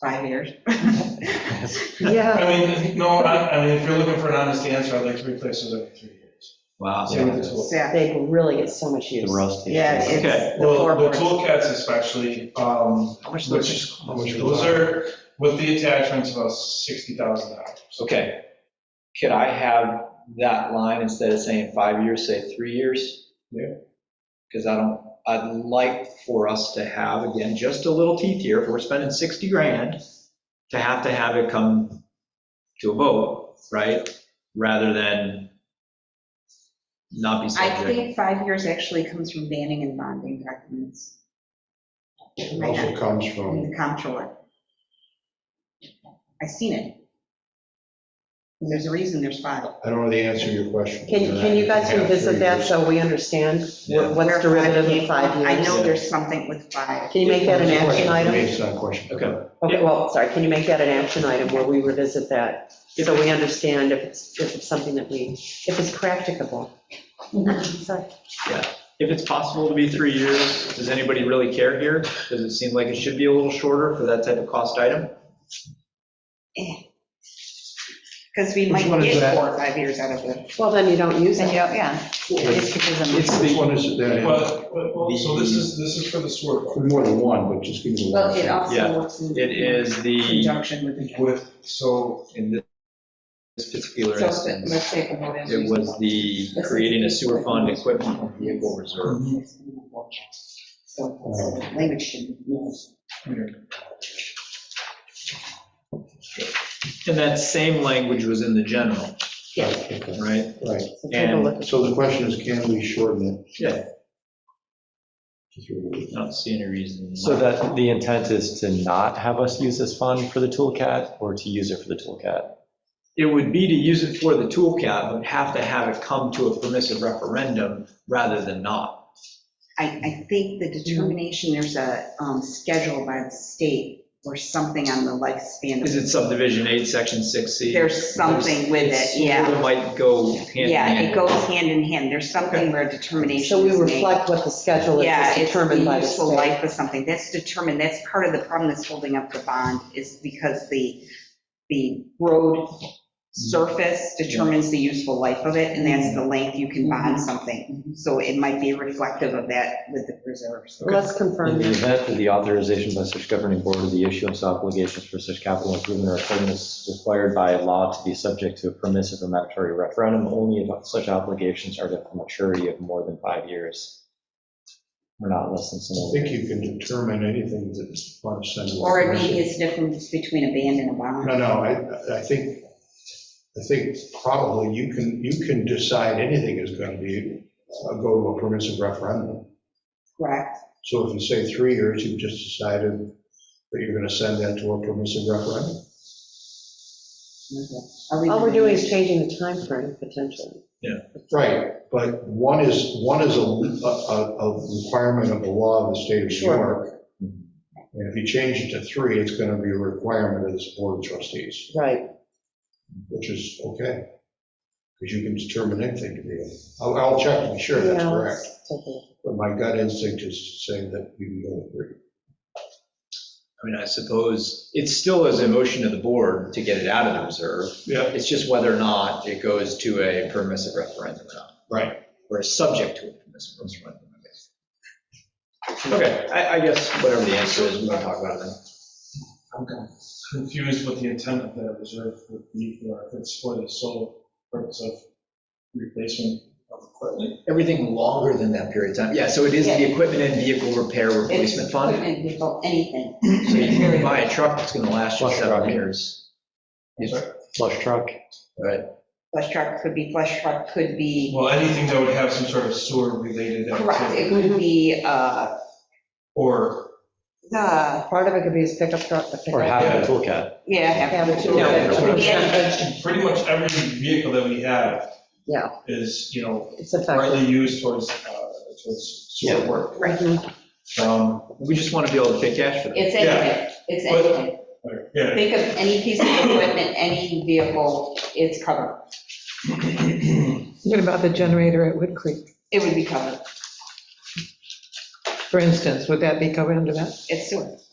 five years. Yeah. I mean, no, I, I mean, if you're looking for an honest answer, I'd like to replace those every three years. Wow. See what this yeah, will- Exactly. They really get so much The use. roast. Yeah, it's Okay. the Well, the floorboards. toolkits especially, um, which, those are, with the attachments, about sixty thousand dollars. Okay. Could I have that line instead of saying five years, say three years? Yeah. Because I don't, I'd like for us to have, again, just a little teeth here, if we're spending 60 grand, to have to have it come to a vote, right? Rather than not be I subject. think five years actually comes from banning and bonding documents It also comes from from, the comptroller. I seen it. And there's a reason there's five. I don't know the answer to your question. Can, can you guys Yeah, revisit three that years. so we understand Yeah. what- what's derivative of five I years? know there's something with five. Can you make that an action item? Based on question. Okay. Okay, well, sorry, can you make that an action item where we revisit that? So we understand if it's, if it's something that we, if it's practicable. Sorry. If it's possible to be three years, does anybody really care here? Does it seem like it should be a little shorter for that type of cost item? Because we might Which one is get that? four or five years out of it. Well, then you don't use And you it. don't, yeah. Which It's because I'm- which one is it that? is? But, but- well, so this is, this is for the sword, More than one, but just give me the Well, one. it Yeah, also works in It is the, conjunction with the. with, so in this particular So instance. let's say promote as It was the creating a sewer fund equipment and vehicle reserve. reasonable. So so the language should move. And that same language was in the general, Okay, right? Right, So take a look. so the question is, can we shorten it? Yeah. to three years? I don't see any reason. So that the intent is to not have us use this fund for the toolcat or to use it for the toolcat? It would be to use it for the toolcat, but have to have it come to a permissive referendum rather than not. I, I think the determination, there's a um, schedule by the state or something on the lifespan. Is of- it subdivision eight, section six C? There's something with it, yeah. It might go hand in Yeah, it hand. goes hand in hand. There's something where determination So we is made. reflect what the schedule is Yeah, that's it's the determined by the useful state. life of something. That's determined, that's part of the problem that's holding up the bond is because the, the road surface determines the useful life of it, and Mm-hmm. that's the length you can bond something. So it might be reflective of that with the reserves. Let's confirm In the that. event that the authorization by such governing board of the issuance obligations for such capital improvement or equipment is required by law to be subject to a permissive or mandatory referendum, only if such obligations are to a maturity of more than five years. Or not less than I some. think you can determine anything that's on a send. Or it maybe it's difference between a band and a bond. No, no, I, I think, I think probably you can, you can decide anything is going to be, uh, go to a permissive referendum. Correct. So if you say three years, you've just decided that you're going to send that to a permissive referendum. Are we- All we're doing is changing the timeframe potentially. Right, but one is, one is a, a- a requirement of the law of the state of New Sure. York. And if you change it to three, it's going to be a requirement of the board of trustees, Right. which is okay. Because you can determine anything to be, I'll, I'll check to be sure that's Yeah, correct. let's take a look. But my gut instinct is to say that you can go with three. I mean, I suppose it still is a motion of the board to get it out of the reserve. Yeah. It's just whether or not it goes to a permissive referendum or not, Right. or is subject to a permissive referendum. I guess. Okay, I, I guess whatever the answer is, we can talk about it then. I'm kind of confused what the intent of that reserve would be for, if it's for the sole purpose of replacement of equipment. Everything longer than that period of time. Yeah, so it is the equipment and vehicle repair replacement fund. Equipment, vehicle, Anything. So you can buy a truck that's gonna last you Plus seven truck. years. Yes. Flush truck? Right, Flush truck could be, flush truck could be. Well, anything that would have some sort of sewer-related Correct, it activity, could be, uh, or, the, Part of it could be his pickup truck, the Or pickup. have a toolcat? yeah, have Have it it too. too. Yeah, It could be anything. pretty much every vehicle that we have Yeah, is, you know, it's effective. rightly used towards, uh, towards sewer work. Mhm. Um, we just wanna be able to pay cash for that. It's anything, it's But- anything. Yeah, Think of any piece of equipment, any vehicle, it's covered. What about the generator at Wood Creek, It would be covered. for instance? Would that be covered under that? It's sewer.